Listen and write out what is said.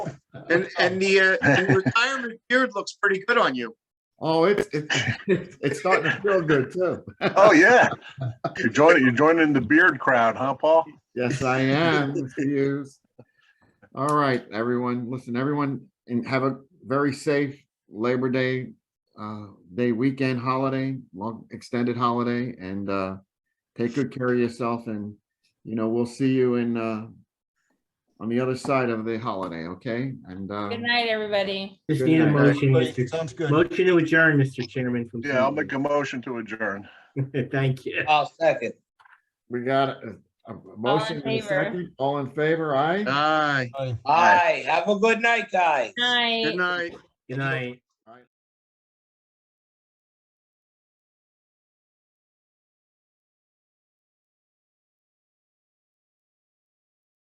And, and the, uh, and the retirement beard looks pretty good on you. Oh, it's, it's, it's it's starting to feel good too. Oh, yeah. You're joining, you're joining the beard crowd, huh, Paul? Yes, I am, Mr. Hughes. All right, everyone, listen, everyone, and have a very safe Labor Day, uh, day weekend holiday, long extended holiday, and, uh, take good care of yourself and, you know, we'll see you in, uh, on the other side of the holiday, okay? And, uh, Good night, everybody. Just Good need a night, motion, Everybody, Mr. Sounds good. Motion to adjourn, Mr. Chairman. from- Yeah, I'll make a motion to adjourn. Thank you. I'll second. we got a- a motion and a favor. second. All in favor, aye? Aye, Bye. Aye, have a good night, guys. Night. good night. Good night.